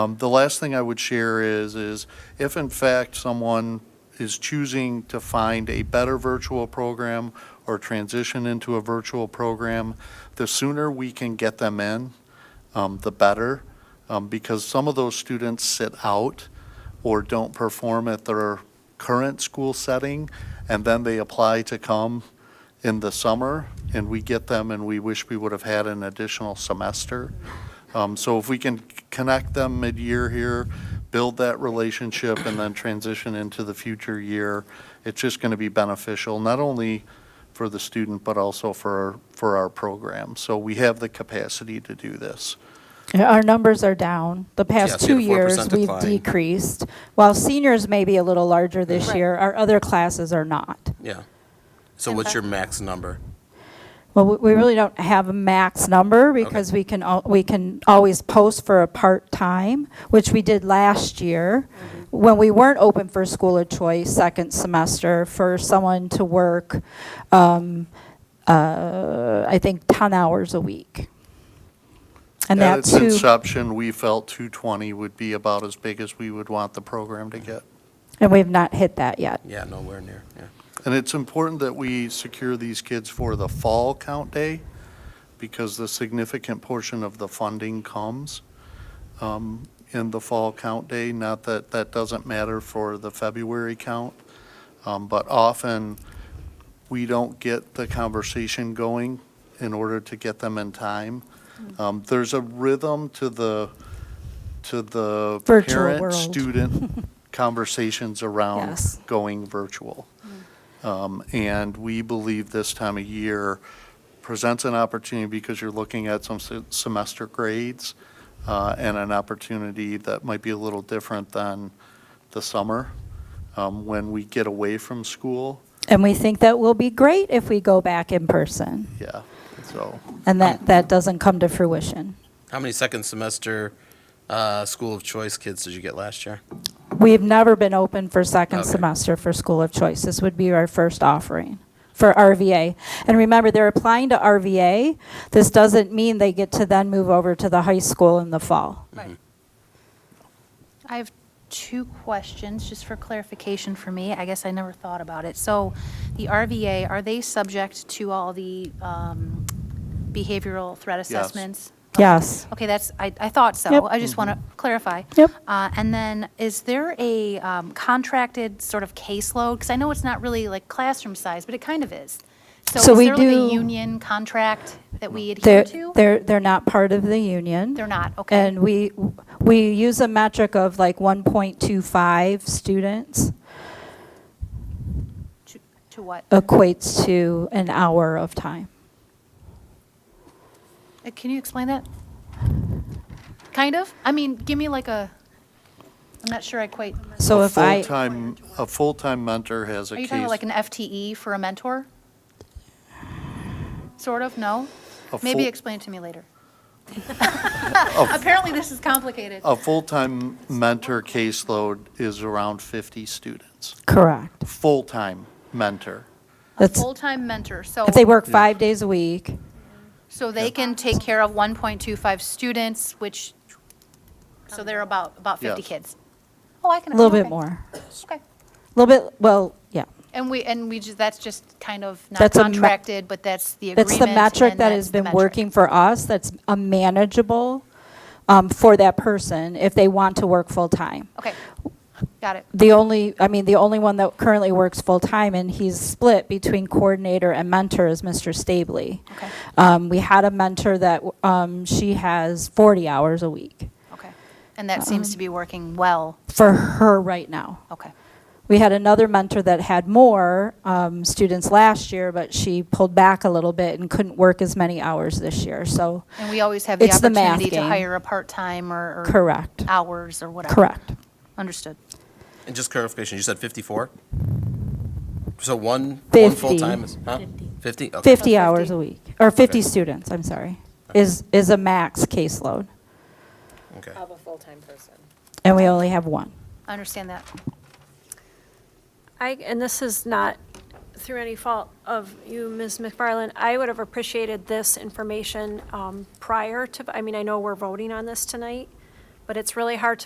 Um, The last thing I would share is, is if in fact someone is choosing to find a better virtual program or transition into a virtual program, the sooner we can get them in, um, the better, um, because some of those students sit out or don't perform at their current school setting, and then they apply to come in the summer, and we get them, and we wish we would have had an additional semester. Um, So if we can c- connect them mid-year here, build that relationship, and then transition into the future year, it's just going to be beneficial, not only for the student, but also for, for our program. So we have the capacity to do this. Our numbers are down. The past Yes, we two had a 4% years, we've decline. decreased. While seniors may be a little larger this Right. year, our other classes are not. Yeah. So what's your max number? Well, we- we really don't have a max number because we can, al- we can always post for a part-time, which we did last year, when we weren't open for school of choice second semester, for someone to work, um, uh, I think, 10 hours a week. And At that its too, inception, we felt 220 would be about as big as we would want the program to get. and we've not hit that yet. Yeah, nowhere near, yeah. And it's important that we secure these kids for the fall count day because the significant portion of the funding comes um, in the fall count day. Not that that doesn't matter for the February count, um, but often we don't get the conversation going in order to get them in time. Um, There's a rhythm to the, to the Virtual world. parent-student conversations around Yes. Mm. going virtual. Um, And we believe this time of year presents an opportunity because you're looking at some se- semester grades uh, and an opportunity that might be a little different than the summer um, when we get away from school. And we think that will be great if we go back in person, Yeah, so. and that, that doesn't come to fruition. How many second semester uh, school of choice kids did you get last year? We've never been open for second Okay. semester for School of Choice. This would be our first offering for RVA. And remember, they're applying to RVA. This doesn't mean they get to then move over to the high school in the fall. I have two questions, just for clarification for me. I guess I never thought about it. So the RVA, are they subject to all the um, behavioral threat assessments? Yes. Okay, that's, I, I thought Yep. so. I just want to clarify. Yep. Uh, And then, is there a um, contracted sort of caseload? Because I know it's not really like classroom size, but it kind of is. So we So is there like do- a union contract that we adhere They're, to? they're, they're not part of the union. They're not, okay. And we, we use a metric of like 1.25 students To- To what? Uh, equates to an hour of time. Uh, Can you explain that? Kind of? I mean, give me like a, I'm not sure I quite, So a if I, full-time- A full-time mentor has a are case. you talking about like an FTE for a mentor? Sort of, no? A Maybe full- Oh. explain it to me later. Apparently, this is complicated. A full-time mentor caseload is around 50 students. correct. Full-time mentor. That's, Full-time mentor, so, if they work five days a week, so they can take care of 1.25 students, which, so they're about, about 50 Yes. kids. Oh, I can. a little bit okay. more. Okay. A little bit, well, yeah. And we, and we, ju- that's just kind of not That's a ma- contracted, but that's the agreement. That's the metric and that that's has the been metric. working for us, that's a manageable um, for that person if they want to work full-time. Okay, got it. The only, I mean, the only one that currently works full-time, and he's split between coordinator and mentor, is Mr. Stabley. Okay. Um, We had a mentor that, um, she has 40 hours a week Okay. And that seems to Um, be working well. for her right now. Okay. We had another mentor that had more um, students last year, but she pulled back a little bit and couldn't work as many hours this year, so. And we always have the It's the math opportunity to game. hire a part-time or. or Correct. Hours or whatever. Correct. Understood. And just clarification, you said 54? So one, one Fifty. full-time is, huh? 50? Okay. 50 Oh, hours 50. a week, or 50 Okay. students, I'm sorry, is, is a max caseload, Okay. of a full-time person. and we only have one. I understand that. I, and this is not through any fault of you, Ms. McFarland, I would have appreciated this information um, prior to, I mean, I know we're voting on this tonight, but it's really hard to.